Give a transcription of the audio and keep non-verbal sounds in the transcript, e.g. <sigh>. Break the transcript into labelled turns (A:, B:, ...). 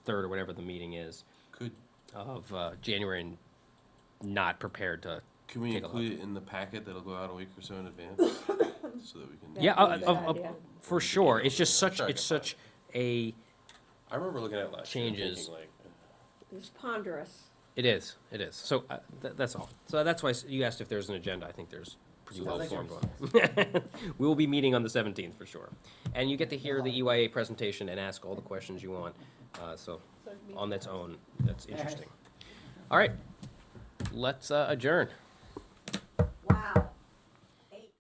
A: third or whatever the meeting is
B: Could,
A: of uh, January and not prepared to.
B: can we
A: Take a look.
B: include it in the packet that'll go out a week or so in advance? <coughs> So that we can.
A: Yeah,
C: That'd be
A: uh,
C: a good
A: uh, uh,
C: idea.
A: for sure. It's just such,
B: Sure, I
A: it's
B: get that.
A: such a,
B: I remember looking at it last year and
A: Changes.
B: thinking, like,
C: It's ponderous.
A: it is, it is. So uh, tha- that's all. So that's why s- you asked if there's an agenda. I think there's pretty
B: So
A: well
B: that's
A: formed one. <laughs> We will be meeting on the seventeenth for sure. And you get to hear the EYA presentation and ask all the questions you want. Uh, So on its own, that's interesting. All right, let's uh, adjourn.